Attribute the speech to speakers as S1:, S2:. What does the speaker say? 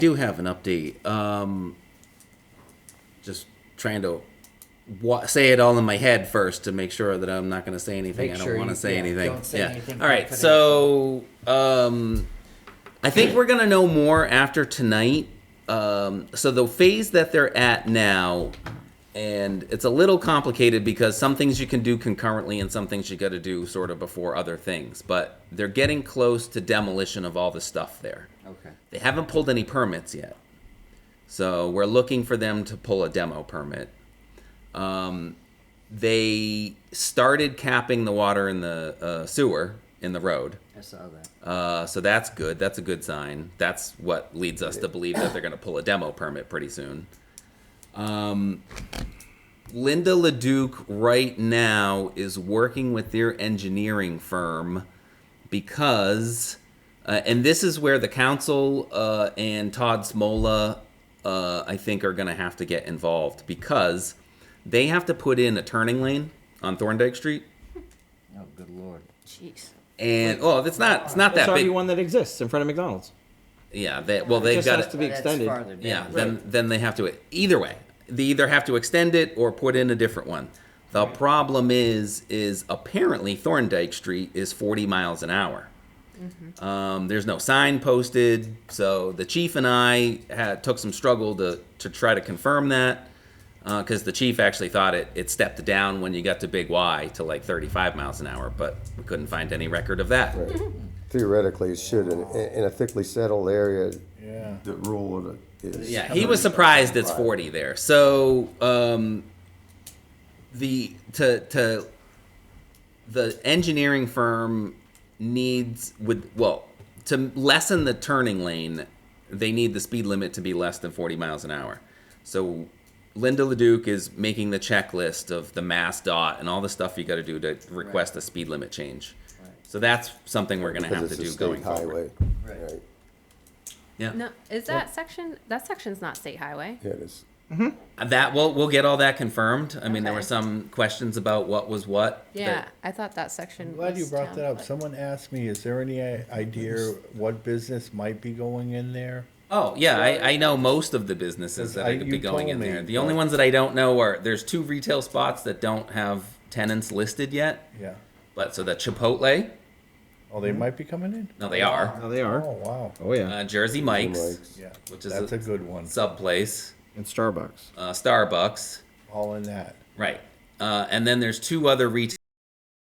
S1: do have an update. Um, just trying to wa- say it all in my head first to make sure that I'm not going to say anything.
S2: Make
S1: I don't
S2: sure
S1: want to
S2: you-
S1: say
S2: yeah,
S1: anything.
S2: don't say
S1: yeah.
S2: anything
S1: all right. So um, I think we're going to know more after tonight. Um, so the phase that they're at now. And it's a little complicated because some things you can do concurrently and some things you got to do sort of before other things. But they're getting close to demolition of all the stuff there.
S2: Okay.
S1: They haven't pulled any permits yet. So we're looking for them to pull a demo permit. Um, they started capping the water in the uh, sewer in the road.
S2: I saw that.
S1: Uh, so that's good. That's a good sign. That's what leads us to believe that they're going to pull a demo permit pretty soon. Um, Linda LaDuke right now is working with their engineering firm because, uh, and this is where the council uh, and Todd Smola, uh, I think, are going to have to get involved because they have to put in a turning lane on Thorndike Street.
S2: Oh, good lord.
S3: Jeez.
S1: And oh, it's not it's not
S4: It's
S1: that
S4: already
S1: big.
S4: one that exists in front of McDonald's.
S1: Yeah, they, well,
S4: It
S1: they've
S4: just
S1: got
S4: has to be
S2: Oh, that's
S4: extended.
S2: farther down.
S1: Yeah, then then they have to either way. They either have to extend it or put in a different one. The problem is is apparently Thorndike Street is 40 miles an hour. Um, there's no sign posted, so the chief and I had, took some struggle to to try to confirm that because the chief actually thought it it stepped down when you got to Big Y to like 35 miles an hour, but we couldn't find any record of that.
S5: Theoretically, it should, in, in a thickly settled area. Yeah. The rule of it is.
S1: Yeah, he was surprised it's 40 there. So um, the to to the engineering firm needs would well to lessen the turning lane, they need the speed limit to be less than 40 miles an hour. So Linda LeDuc is making the checklist of the mass dot and all the stuff you got to do to request a speed limit change. So that's something we're going to have
S5: Because
S1: to
S5: it's a
S1: do going
S5: state
S1: forward.
S5: highway.
S2: Right.
S1: Yeah.
S3: No, is that section? That section's not state highway.
S5: Yeah, it is.
S1: That we'll we'll get all that confirmed. I mean, there
S3: Okay.
S1: were some questions about what was what. that-
S3: Yeah, I thought that section.
S6: I'm glad you
S3: was
S6: brought
S3: town,
S6: that up.
S3: but-
S6: Someone asked me, is there any i- idea what business might be going in there?
S1: oh yeah, I, I know most of the businesses that
S6: I-
S1: are could be
S6: you
S1: going in
S6: told me,
S1: there. The only
S6: but-
S1: ones that I don't know are there's two retail spots that don't have tenants listed yet.
S6: Yeah.
S1: But so the Chipotle,
S6: Oh, they might be coming in?
S1: Hmm. no, they are.
S4: No, they are.
S6: Oh, wow.
S4: Oh yeah.
S1: Uh, Jersey Mike's,
S5: Mike's.
S6: Yeah.
S1: which is
S6: That's a good one.
S1: sub place.
S4: And Starbucks.
S1: Uh, Starbucks,
S6: All in that.
S1: right? Uh, and then there's two other retail